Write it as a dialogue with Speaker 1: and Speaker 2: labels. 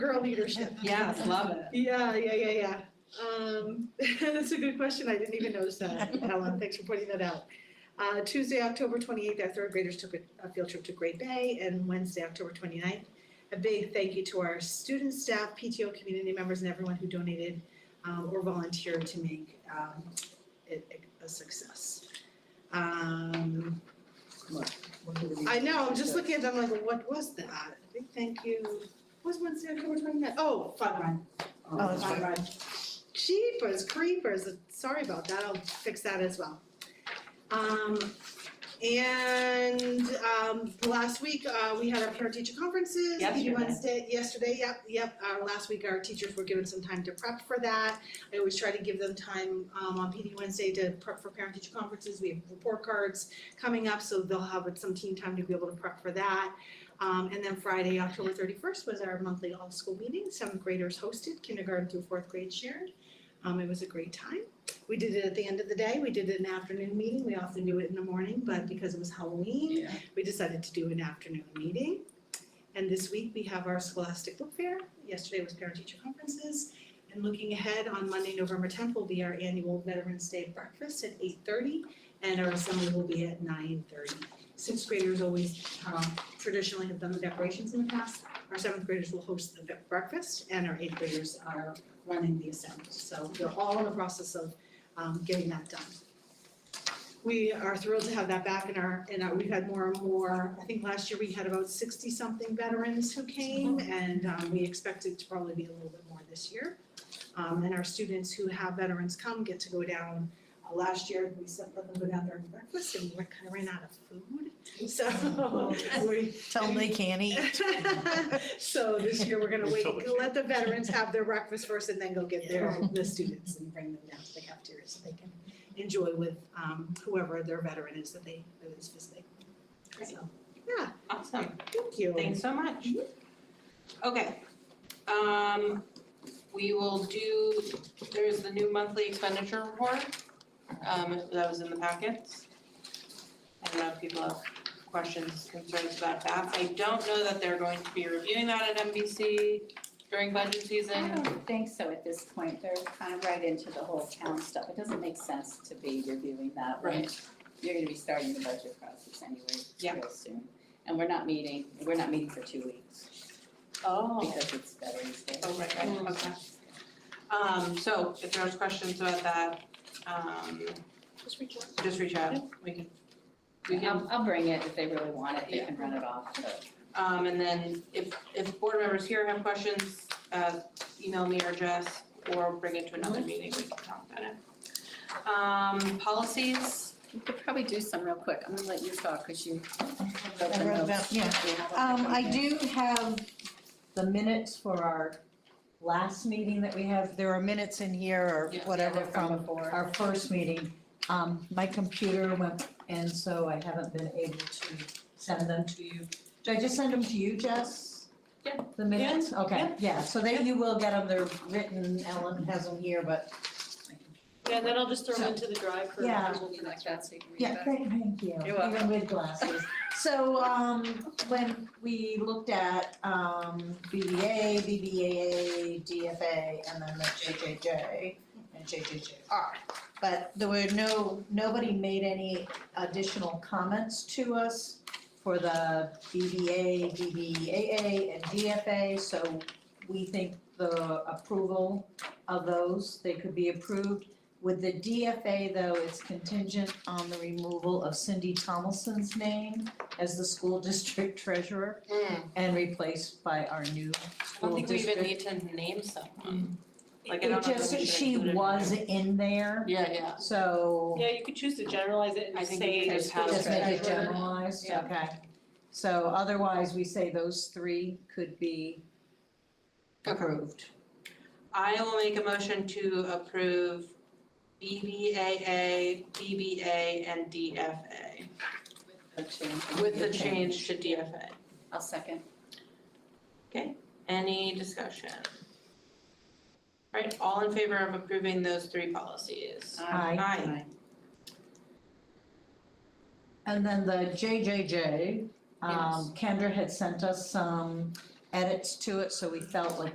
Speaker 1: Girl leadership.
Speaker 2: Yes, love it.
Speaker 1: Yeah, yeah, yeah, yeah. Um, that's a good question. I didn't even notice that, Helen. Thanks for pointing that out. Uh, Tuesday, October twenty-eighth, our third graders took a, a field trip to Great Bay, and Wednesday, October 29th. A big thank you to our students, staff, PTO, community members, and everyone who donated, um, or volunteered to make, um, it a success. Um, I know, I'm just looking at them like, what was that? Big thank you. What was Wednesday, October 29th? Oh, fun run.
Speaker 3: Oh,
Speaker 4: Um,
Speaker 3: that's
Speaker 1: Fun
Speaker 3: right.
Speaker 1: run. Jeepers creepers, sorry about that, I'll fix that as well. Um, and, um, last week, uh, we had our parent teacher conferences. We
Speaker 2: Yesterday.
Speaker 1: Wednesday, yesterday, yep, yep, uh, last week our teachers were given some time to prep for that. I always try to give them time, um, on PD Wednesday to prep for parent teacher conferences, we have report cards coming up, so they'll have some team time to be able to prep for that. Um, and then Friday, October thirty-first was our monthly all-school meeting, seventh graders hosted, kindergarten through fourth grade shared. Um, it was a great time. We did it at the end of the day, we did an afternoon meeting, we often do it in the morning, but because it was Halloween,
Speaker 3: Yeah.
Speaker 1: we decided to do an afternoon meeting. And this week, we have our Scholastic Book Fair, yesterday was parent-teacher conferences. And looking ahead, on Monday, November tenth, will be our annual Veterans Day breakfast at eight thirty, and our assembly will be at nine thirty. Sixth graders always um, traditionally have done the decorations in the past. Our seventh graders will host the breakfast and our eighth graders are running the assembly. So they're all in the process of um, getting that done. We are thrilled to have that back in our, in our, we've had more and more, I think last year we had about sixty-something veterans who came and um, we expect it to probably be a little bit more this year. Um, and our students who have veterans come get to go down. Uh, Last year, we sent them to go down there and breakfast and we kind of ran out of food, so we,
Speaker 3: Tell them they can't eat.
Speaker 1: So this year, we're gonna wait,
Speaker 5: Until the-
Speaker 1: let the veterans have their breakfast first and then go get their, the students and bring them down to the cafeteria so they can enjoy with um whoever their veteran is that they, that is visiting. So,
Speaker 2: Awesome,
Speaker 1: thank you.
Speaker 2: thanks so much. Okay, um, we will do, there's the new monthly expenditure report, um, that was in the packets. I don't know if people have questions, concerns about that. I don't know that they're going to be reviewing that at MBC during budget
Speaker 4: I
Speaker 2: season.
Speaker 4: don't think so at this point, they're kind of right into the whole town stuff, it doesn't make sense to be reviewing that when You're gonna be starting the budget process anyway,
Speaker 2: Yeah.
Speaker 4: real soon, and we're not meeting, we're not meeting for two weeks,
Speaker 2: Oh.
Speaker 4: because it's Veterans Day.
Speaker 2: Oh, right, right, okay. Um, so if there's questions about that, um,
Speaker 1: Just reach out.
Speaker 2: just reach out, we can, we can
Speaker 4: I'll, I'll bring it if they really want it, they can run it off, but.
Speaker 2: Um, and then if, if board members here have questions, uh, email me or Jess, or bring it to another
Speaker 6: Mm-hmm.
Speaker 2: meeting, we can talk about it. Um, policies,
Speaker 4: We could probably do some real quick, I'm gonna let you talk, cause you wrote
Speaker 3: I
Speaker 4: the
Speaker 3: wrote
Speaker 4: notes.
Speaker 3: that, yeah. Um, I do have the minutes for our last meeting that we have. There are minutes in here or
Speaker 2: Yeah, yeah,
Speaker 3: whatever
Speaker 4: they're from
Speaker 3: from our first meeting. Um, my computer went, and so I haven't been able to send them to you. Did I just send them to you, Jess?
Speaker 2: Yeah.
Speaker 3: The minutes? Okay,
Speaker 2: yeah.
Speaker 3: yeah, so then you will get them. They're written. Ellen has them here, but.
Speaker 6: Yeah, and then I'll just throw
Speaker 3: So-
Speaker 6: them into the drive for
Speaker 3: Yeah.
Speaker 6: approval for next
Speaker 4: that, so you can read
Speaker 3: Yeah,
Speaker 4: that.
Speaker 3: thank, thank you,
Speaker 4: You're welcome.
Speaker 3: even with glasses. So, um, when we looked at, um, BBA, BBAA, DFA, and then the JJJ and JJJR.
Speaker 4: Ah.
Speaker 3: But there were no, nobody made any additional comments to us for the BBA, BBAA, and DFA, so we think the approval of those, they could be approved. With the DFA though, it's contingent on the removal of Cindy Tomlinson's name as the school district treasurer
Speaker 2: Hmm, I
Speaker 3: and replaced by our new
Speaker 2: don't
Speaker 3: school
Speaker 2: think we even
Speaker 3: district.
Speaker 2: need to name someone. Like, I don't know
Speaker 3: It
Speaker 2: if
Speaker 3: just,
Speaker 2: we should
Speaker 3: she
Speaker 2: include it.
Speaker 3: was in there,
Speaker 2: Yeah, yeah.
Speaker 3: so
Speaker 6: Yeah, you could choose to generalize it
Speaker 2: I
Speaker 6: and
Speaker 2: think
Speaker 6: say
Speaker 2: we
Speaker 6: the
Speaker 2: just have
Speaker 6: school
Speaker 3: just make it
Speaker 6: treasurer.
Speaker 3: generalized, okay.
Speaker 6: Yeah.
Speaker 3: So otherwise, we say those three could be
Speaker 2: Okay.
Speaker 3: approved.
Speaker 2: I will make a motion to approve BBAA, BBA, and DFA, with the change to DFA.
Speaker 4: I'll second.
Speaker 2: Any discussion? Right, all in favor of approving those three policies?
Speaker 3: Aye.
Speaker 2: Aye.
Speaker 3: And then the JJJ,
Speaker 2: Yes.
Speaker 3: um, Kendra had sent us some edits to it, so we felt like